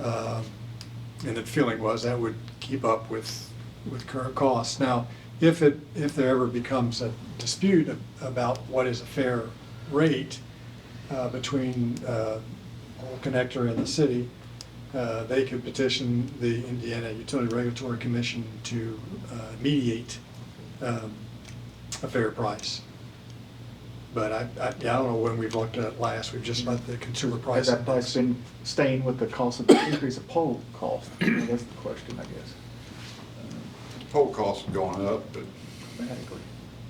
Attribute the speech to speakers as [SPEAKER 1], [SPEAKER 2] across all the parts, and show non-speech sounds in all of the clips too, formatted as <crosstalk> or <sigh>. [SPEAKER 1] Um, And the feeling was that would keep up with, with current costs. Now, if it, if there ever becomes a dispute a- about what is a fair rate uh, between uh, Old Connector and the city, uh, they could petition the Indiana Utility Regulatory Commission to uh, mediate um, a fair price. But I, I I don't know when we've looked at it last, we've just let the consumer price.
[SPEAKER 2] Has that price been staying with the cost of the increase of poll cost? That's the question, I guess.
[SPEAKER 3] Poll costs have gone up, but
[SPEAKER 2] Dramatically.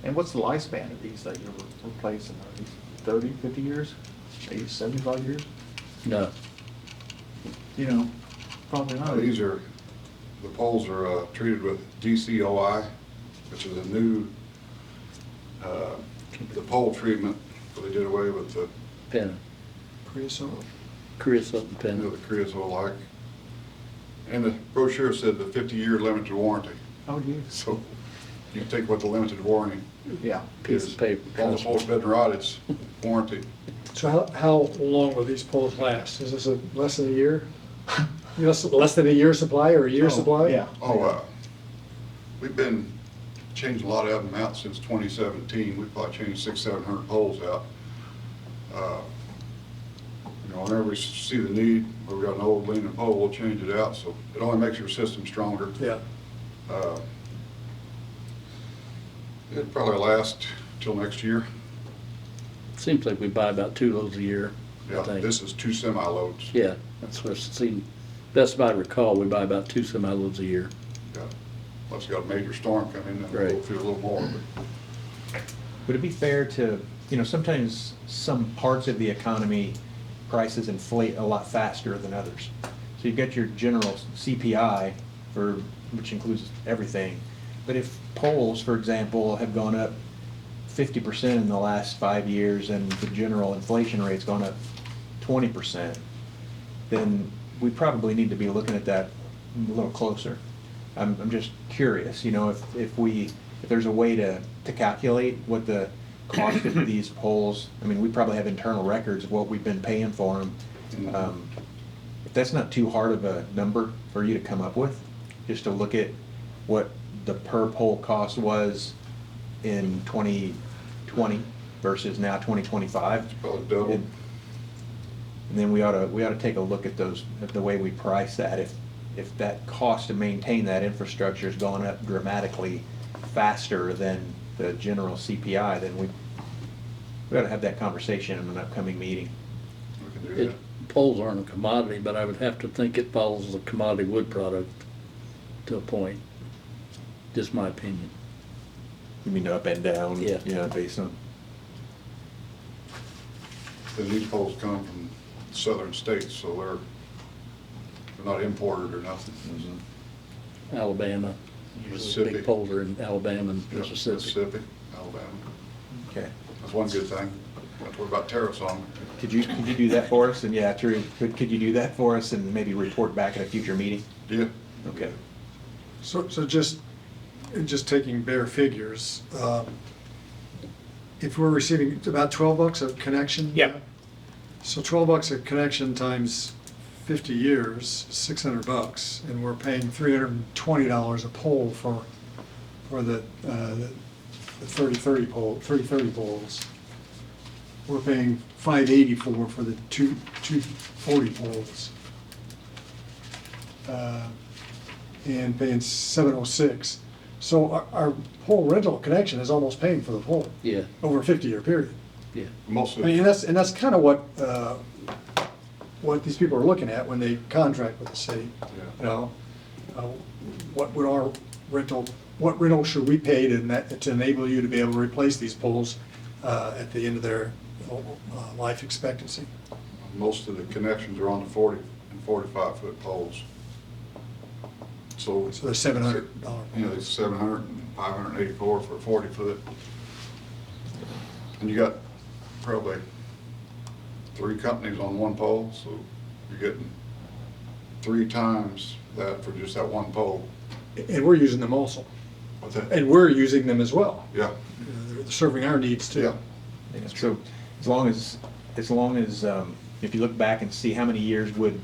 [SPEAKER 2] And what's the lifespan of these that you're replacing? Are these 30, 50 years? Maybe 75 years?
[SPEAKER 4] No.
[SPEAKER 2] You know, probably
[SPEAKER 3] now
[SPEAKER 2] not.
[SPEAKER 3] Oh, these are, the polls are uh, treated with DCOI, which is a new, uh, the poll treatment, so they did away with the,
[SPEAKER 4] Penna.
[SPEAKER 1] Creosote.
[SPEAKER 4] Creosote and
[SPEAKER 3] you know,
[SPEAKER 4] Penna.
[SPEAKER 3] the creosote-like. And the brochure said the 50-year limited warranty,
[SPEAKER 2] Oh, yes.
[SPEAKER 3] so you take what the limited warranty
[SPEAKER 2] Yeah.
[SPEAKER 4] Piece
[SPEAKER 3] is.
[SPEAKER 4] of paper.
[SPEAKER 3] On the whole bed and rod, it's warranty.
[SPEAKER 1] So how, how long will these poles last? Is this a, less than a year? <laughs> Less, less than a year supply or a year
[SPEAKER 2] Oh,
[SPEAKER 1] supply?
[SPEAKER 2] Yeah.
[SPEAKER 3] Oh, uh, we've been changing a lot of them out since 2017. We've probably changed six, 700 poles out. Uh, You know, whenever we see the need, or we got an old leaning pole, we'll change it out, so it only makes your system stronger.
[SPEAKER 1] Yeah,
[SPEAKER 3] Uh, It'd probably last till next year.
[SPEAKER 4] Seems like we buy about two loads a year,
[SPEAKER 3] Yeah,
[SPEAKER 4] I think.
[SPEAKER 3] this is two semi-loads.
[SPEAKER 4] Yeah, that's what I've seen. Best I recall, we buy about two semi loads a year.
[SPEAKER 3] Yeah. Unless you got a major storm coming, in, then we'll
[SPEAKER 4] Right.
[SPEAKER 3] feel a little more, but
[SPEAKER 5] Would it be fair to, you know, sometimes some parts of the economy prices inflate a lot faster than others. So you've got your general CPI for, which includes everything. But if polls, for example, have gone up fifty percent in the last five years and the general inflation rate's gone up twenty percent, then we probably need to be looking at that a little closer. I'm, I'm just curious, you know, if, if we, if there's a way to, to calculate what the cost of these polls, I mean, we probably have internal records of what we've been paying for them. Um, If that's not too hard of a number for you to come up with, just to look at what the per poll cost was in 2020 versus now 2025.
[SPEAKER 3] probably double.
[SPEAKER 5] And then we ought to, we ought to take a look at those, at the way we price that. If, if that cost to maintain that infrastructure has gone up dramatically faster than the general CPI, then we, we ought to have that conversation in an upcoming meeting.
[SPEAKER 3] We can do
[SPEAKER 4] It,
[SPEAKER 3] that.
[SPEAKER 4] poles aren't a commodity, but I would have to think it follows the commodity wood product to a point. Just my opinion.
[SPEAKER 5] You mean up and down?
[SPEAKER 4] Yeah.
[SPEAKER 5] Yeah, based on,
[SPEAKER 3] The new poles come from southern states, so they're, they're not imported or nothing.
[SPEAKER 5] mm-hmm.
[SPEAKER 4] Alabama, usually the
[SPEAKER 3] Mississippi.
[SPEAKER 4] big poles are in Alabama and
[SPEAKER 3] Yeah,
[SPEAKER 4] Mississippi.
[SPEAKER 3] Mississippi, Alabama.
[SPEAKER 5] okay.
[SPEAKER 3] That's one good thing. Don't worry about tariffs on it.
[SPEAKER 5] Could you, could you do that for us? And yeah, true, could, could you do that for us and maybe report back at a future meeting?
[SPEAKER 3] Yeah.
[SPEAKER 5] Okay.
[SPEAKER 1] so, so just, just taking bare figures, um, if we're receiving it's about twelve bucks a connection?
[SPEAKER 6] Yep.
[SPEAKER 1] So twelve bucks a connection times fifty years, six hundred bucks, and we're paying three hundred and twenty dollars a pole for, for the, uh, the thirty-thirty pole, thirty-thirty poles. We're paying five eighty-four for the two, two forty poles. Uh, And paying seven oh six. So our, our pole rental connection is almost paying for the pole
[SPEAKER 4] Yeah,
[SPEAKER 1] over a fifty-year period.
[SPEAKER 4] yeah.
[SPEAKER 3] Most
[SPEAKER 1] I
[SPEAKER 3] of,
[SPEAKER 1] mean, and
[SPEAKER 3] yeah,
[SPEAKER 1] that's, and that's kind of what, uh, what these people are looking at when they contract with the city. You know, uh, what would our rental, what rental should we pay to, na- to enable you to be able to replace these poles uh, at the end of their uh, life expectancy?
[SPEAKER 3] most of the connections are on the forty and forty-five foot poles. So.
[SPEAKER 1] So they're seven hundred dollar
[SPEAKER 3] You know, it's seven hundred and five hundred and eighty-four for a forty foot. And you got probably three companies on one pole, so you're getting three times that for just that one pole.
[SPEAKER 1] And we're using them also,
[SPEAKER 3] What's that?
[SPEAKER 1] and we're using them as well.
[SPEAKER 3] Yeah,
[SPEAKER 1] You know, They're serving our needs too.
[SPEAKER 3] yeah.
[SPEAKER 5] Yeah, so as long as, as long as, um, if you look back and see how many years would